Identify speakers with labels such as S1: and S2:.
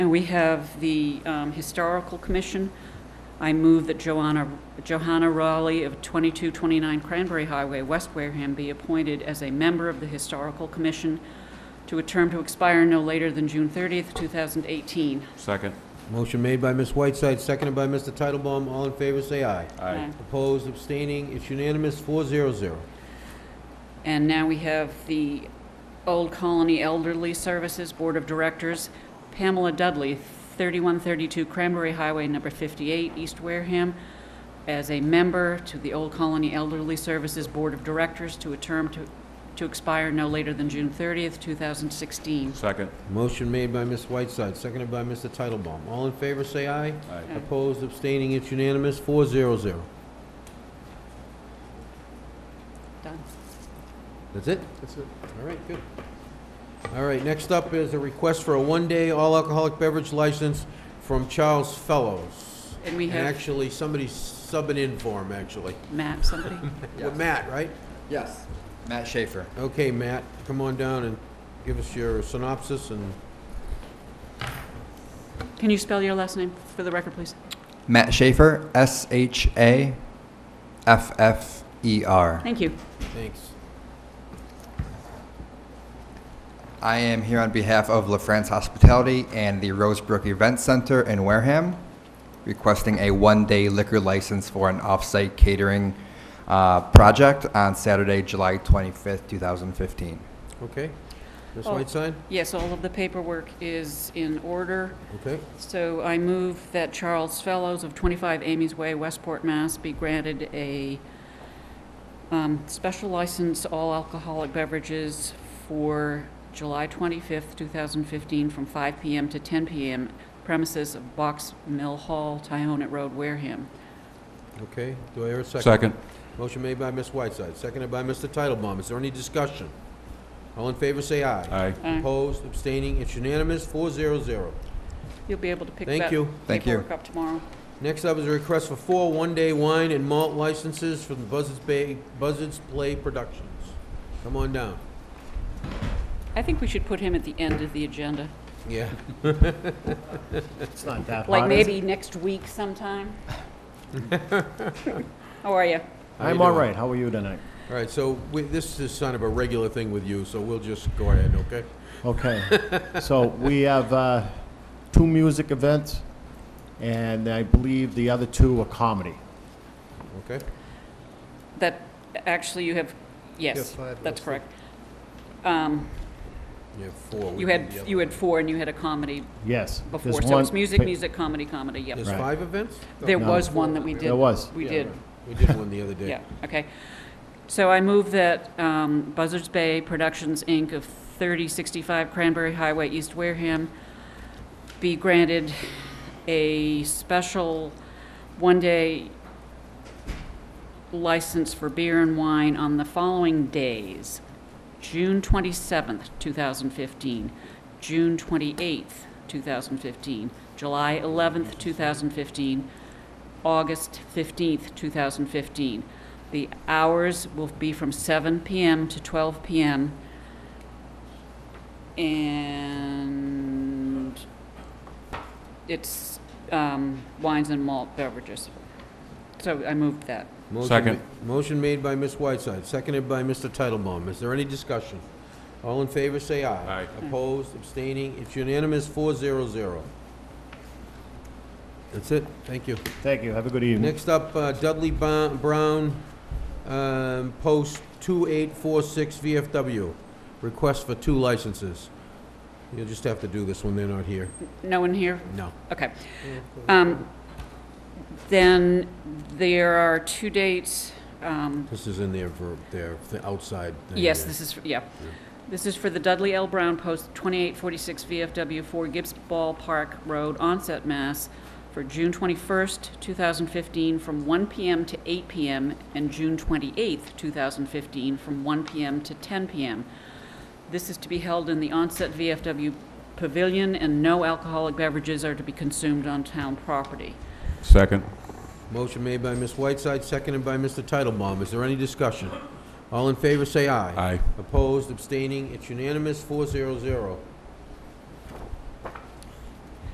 S1: we have the um, Historical Commission. I move that Joanna, Johanna Raleigh of 2229 Cranberry Highway, West Wareham, be appointed as a member of the Historical Commission to a term to expire no later than June 30th, 2018.
S2: Second.
S3: Motion made by Ms. Whiteside, seconded by Mr. Titlebaum. All in favor, say aye.
S2: Aye.
S3: Opposed, abstaining, it's unanimous, four zero zero.
S1: And now we have the Old Colony Elderly Services Board of Directors, Pamela Dudley, 3132 Cranberry Highway, number 58, East Wareham, as a member to the Old Colony Elderly Services Board of Directors to a term to to expire no later than June 30th, 2016.
S2: Second.
S3: Motion made by Ms. Whiteside, seconded by Mr. Titlebaum. All in favor, say aye.
S2: Aye.
S3: Opposed, abstaining, it's unanimous, four zero zero.
S1: Done.
S3: That's it?
S4: That's it.
S3: All right, good. All right, next up is a request for a one-day all-alcoholic beverage license from Charles Fellows.
S1: And we
S3: And
S1: have
S3: actually, somebody's subbing in for him, actually.
S1: Matt, somebody?
S3: With Matt, right?
S4: Yes. Matt Schaefer.
S3: Okay, Matt, come on down and give us your synopsis and
S1: Can you spell your last name for the record, please?
S4: Matt Schaefer, S H A F F E R.
S1: Thank you.
S3: thanks.
S4: I am here on behalf of La France Hospitality and the Rosebrook Event Center in Wareham, requesting a one-day liquor license for an off-site catering uh, project on Saturday, July 25th, 2015.
S3: Okay. Ms.
S1: Oh.
S3: Whiteside?
S1: Yes, all of the paperwork is in order.
S3: Okay.
S1: So I move that Charles Fellows of 25 Amy's Way, Westport, Mass. be granted a um, special license, all alcoholic beverages for July 25th, 2015, from 5 PM to 10 PM, premises of Box Mill Hall, Tyonet Road, Wareham.
S3: Okay. Do I hear a second?
S2: Second.
S3: Motion made by Ms. Whiteside, seconded by Mr. Titlebaum. Is there any discussion? All in favor, say aye.
S2: Aye.
S1: Uh,
S3: Opposed, abstaining, it's unanimous, four zero zero.
S1: You'll be able to pick
S3: Thank
S1: that
S3: you.
S4: Thank you.
S1: paperwork up tomorrow.
S3: Next up is a request for four one-day wine and malt licenses from Buzzards Bay, Buzzards Play Productions. Come on down.
S1: I think we should put him at the end of the agenda,
S3: Yeah.
S5: It's not that
S1: like
S5: hot, is it?
S1: maybe next week sometime. How are you?
S3: How you
S5: I'm all
S3: doing?
S5: right. How are you tonight?
S3: All right, so we, this is kind of a regular thing with you, so we'll just go ahead, okay?
S5: Okay. So we have uh, two music events, and I believe the other two are comedy.
S3: Okay?
S1: That, actually, you have, yes, that's correct. Um,
S3: You have four. We
S1: You
S3: did the
S1: had,
S3: other
S1: you had
S3: one.
S1: four, and you had a comedy
S5: Yes.
S1: before,
S5: there's
S1: so it's
S5: one-
S1: music, music, comedy, comedy,
S3: There's
S1: yep.
S5: Right.
S3: five events? Oh.
S1: There
S5: No.
S1: was one that we did.
S5: There was.
S1: We
S3: Yeah,
S1: did,
S3: right. We did one the other day.
S1: yeah, okay. So I move that um, Buzzards Bay Productions, Inc. of 3065 Cranberry Highway, East Wareham, be granted a special one-day license for beer and wine on the following days. June 27th, 2015, June 28th, 2015, July 11th, 2015, August 15th, 2015. The hours will be from 7 PM to 12 PM. And it's um, wines and malt beverages. So I moved that.
S3: Motion
S2: Second.
S3: ma- Motion made by Ms. Whiteside, seconded by Mr. Titlebaum. Is there any discussion? All in favor, say aye.
S2: Aye.
S3: Opposed, abstaining, it's unanimous, four zero zero. That's it, thank you.
S5: Thank you. Have a good evening.
S3: Next up, uh, Dudley Ba- Brown, um, Post 2846 VFW, request for two licenses. You'll just have to do this when they're not here.
S1: No one here?
S3: No.
S1: Okay. Um, Then there are two dates. um,
S3: This is in their, ver- their th- outside thing.
S1: Yes,
S3: there.
S1: this is, yeah. This is for the Dudley L. Brown Post, 2846 VFW, 4 Gibbs Ball Park Road, Onset, Mass, for June 21st, 2015, from 1 PM to 8 PM, and June 28th, 2015, from 1 PM to 10 PM. This is to be held in the Onset VFW Pavilion, and no alcoholic beverages are to be consumed on town property.
S2: Second.
S3: Motion made by Ms. Whiteside, seconded by Mr. Titlebaum. Is there any discussion? All in favor, say aye.
S2: Aye.
S3: Opposed, abstaining, it's unanimous, four zero zero.